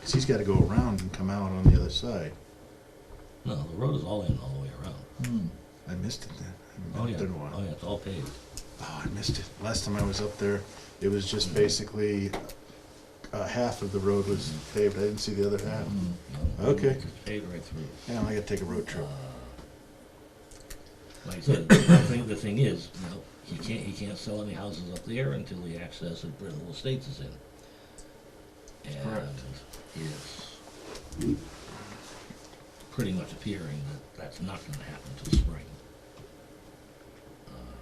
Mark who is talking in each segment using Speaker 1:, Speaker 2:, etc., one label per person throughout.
Speaker 1: 'cause he's gotta go around and come out on the other side.
Speaker 2: No, the road is all in all the way around.
Speaker 1: Mm. I missed it then. I
Speaker 2: Oh,
Speaker 1: haven't
Speaker 2: yeah.
Speaker 1: been up there in a while.
Speaker 2: Oh, yeah, it's all paved.
Speaker 1: Oh, I missed it. Last time I was up there, it was
Speaker 2: Mm-hmm.
Speaker 1: just basically, uh, half of the road was
Speaker 2: Mm-hmm.
Speaker 1: paved. I didn't see the other half.
Speaker 2: No,
Speaker 1: Okay.
Speaker 2: It's paved right through. Uh,
Speaker 1: Damn, I gotta take a road trip.
Speaker 2: Like I said, the thing, the thing is, you know, he can't, he can't sell any houses up there until the access of Brittle Estates is in. And
Speaker 1: Correct.
Speaker 2: it's pretty much appearing that that's not gonna happen till spring. Uh,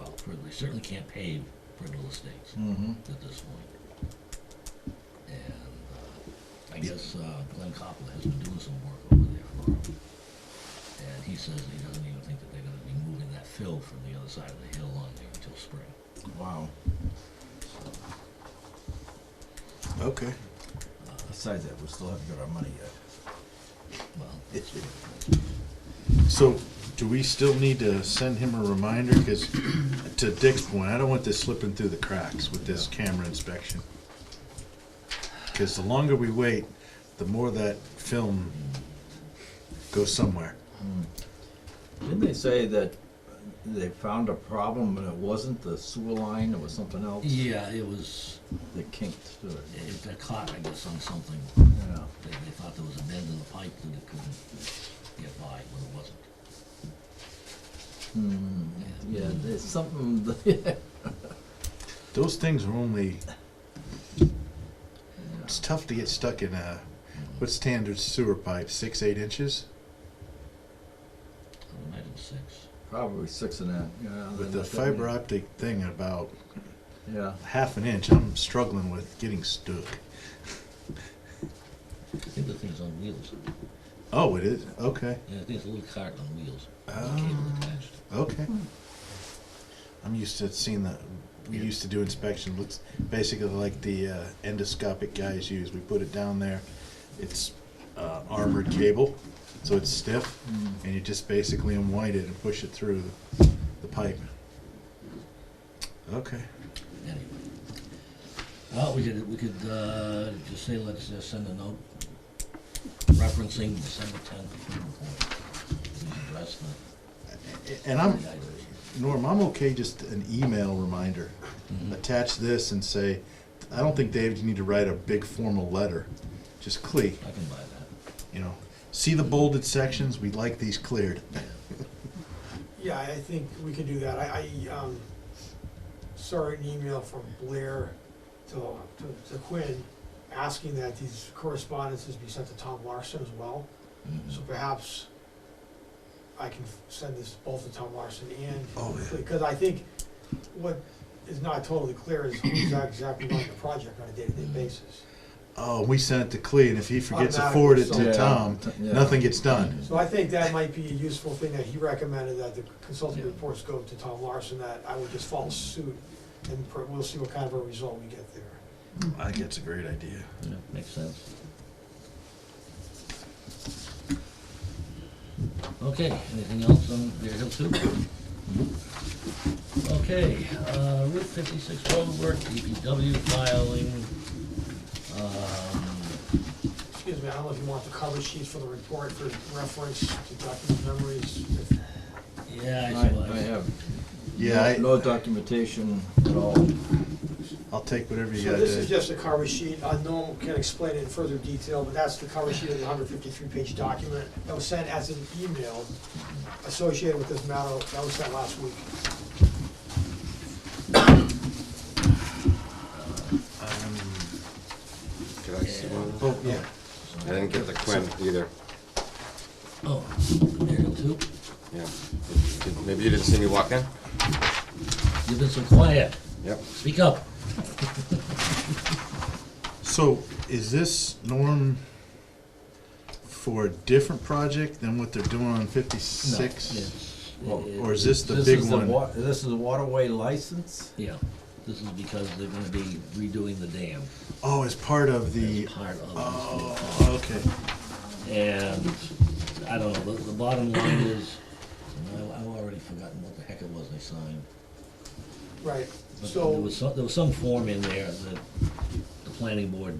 Speaker 2: Well, we certainly can't pave Brittle Estates
Speaker 1: Mm-hmm.
Speaker 2: at this point. And uh, I guess uh, Glenn Coppola has been doing some work over there for him. And he says that he doesn't even think that they're gonna be moving that fill from the other side of the hill on there until spring.
Speaker 3: Wow.
Speaker 1: Okay.
Speaker 3: Besides that, we still haven't got our money yet.
Speaker 2: Well,
Speaker 1: So, do we still need to send him a reminder? Because to Dick's point, I don't want this slipping through the cracks with this camera inspection. Because the longer we wait, the more that film
Speaker 2: Mm-hmm.
Speaker 1: goes somewhere.
Speaker 3: Didn't they say that they found a problem and it wasn't the sewer line, it was something else
Speaker 2: yeah, it was,
Speaker 3: that kinked to it?
Speaker 2: it got caught, I guess, on something.
Speaker 3: Yeah.
Speaker 2: They, they thought there was a bend in the pipe that it couldn't get by, but it wasn't.
Speaker 3: Hmm, yeah, there's something, that-
Speaker 1: Those things are only. It's tough to get stuck in a. What standard sewer pipe? Six, eight inches?
Speaker 2: I would imagine six.
Speaker 3: probably six and a half, yeah.
Speaker 1: With
Speaker 3: they
Speaker 1: the
Speaker 3: looked at
Speaker 1: fiber
Speaker 3: me.
Speaker 1: optic thing at about
Speaker 3: Yeah,
Speaker 1: half an inch, I'm struggling with getting stuck.
Speaker 2: I think the thing's on wheels.
Speaker 1: Oh, it is? Okay.
Speaker 2: Yeah, I think it's a little cart on wheels. with a Cable
Speaker 1: Oh.
Speaker 2: attached.
Speaker 1: Okay. I'm used to seeing the, we
Speaker 2: Yeah.
Speaker 1: used to do inspection, looks basically like the uh, endoscopic guys use. We put it down there, it's uh, armored cable, so it's stiff,
Speaker 3: Mm.
Speaker 1: and you just basically unwind it and push it through the pipe. Okay.
Speaker 2: anyway. Well, we could, we could, uh, just say, let's just send a note referencing December tenth report. We address the
Speaker 1: And I'm,
Speaker 2: the items.
Speaker 1: Norm, I'm okay just an email reminder.
Speaker 2: Mhm.
Speaker 1: Attach this and say, I don't think, Dave, you need to write a big formal letter. Just click,
Speaker 2: I can buy that.
Speaker 1: you know, see the bolded sections, we'd like these cleared.
Speaker 4: Yeah, I think we could do that. I, I, um, saw an email from Blair to, to- to Quinn asking that these correspondences be sent to Tom Larson as well.
Speaker 2: Mhm.
Speaker 4: So perhaps I can f- send this both to Tom Larson and,
Speaker 1: Oh, yeah.
Speaker 4: because I think what is not totally clear is who's exactly running the project on a day-to-day basis.
Speaker 1: Oh, we sent it to Clea, and if he forgets to
Speaker 4: Automatic,
Speaker 1: forward it
Speaker 4: so-
Speaker 1: to Tom,
Speaker 3: Yeah.
Speaker 1: nothing gets done.
Speaker 4: So I think that might be a useful thing that he recommended, that the consulting reports go to Tom Larson, that I would just follow suit, and per- we'll see what kind of a result we get there.
Speaker 1: I think that's a great idea.
Speaker 2: Yeah, makes sense. Okay, anything else on Bear Hill Two? Okay, uh, Route fifty-six road work, DPW filing, um,
Speaker 4: Excuse me, I don't know if you want the cover sheet for the report for reference to document memories. if-
Speaker 2: yeah, I
Speaker 3: I, I
Speaker 2: suppose.
Speaker 3: have.
Speaker 1: Yeah, I,
Speaker 3: No no documentation at all.
Speaker 1: I'll take whatever you
Speaker 4: So
Speaker 1: got
Speaker 4: this is
Speaker 1: to.
Speaker 4: just a cover sheet, I know I can explain it in further detail, but that's the cover sheet of the hundred fifty-three page document that was sent as an email associated with this matter, that was sent last week.
Speaker 5: Did I see one?
Speaker 1: Um, Oh, yeah,
Speaker 5: I didn't get the Quinn either.
Speaker 2: Oh, Bear Hill Two,
Speaker 5: Yeah. Did- Maybe you didn't see me walk in?
Speaker 2: you've been so quiet,
Speaker 5: Yep.
Speaker 2: speak up.
Speaker 1: So is this norm for a different project than what they're doing on fifty-six?
Speaker 2: Yes.
Speaker 1: Or-
Speaker 2: It-
Speaker 1: or is this the
Speaker 3: This
Speaker 1: big
Speaker 3: is the
Speaker 1: one?
Speaker 3: wa- This is the waterway license?
Speaker 2: Yeah, this is because they're gonna be redoing the dam
Speaker 1: Oh, as part of the,
Speaker 2: as part of this.
Speaker 1: oh, okay.
Speaker 2: And I don't know, the, the bottom line is, and I, I've already forgotten what the heck it was they signed.
Speaker 4: Right,
Speaker 2: But
Speaker 4: so.
Speaker 2: there was some, there was some form in there that the planning board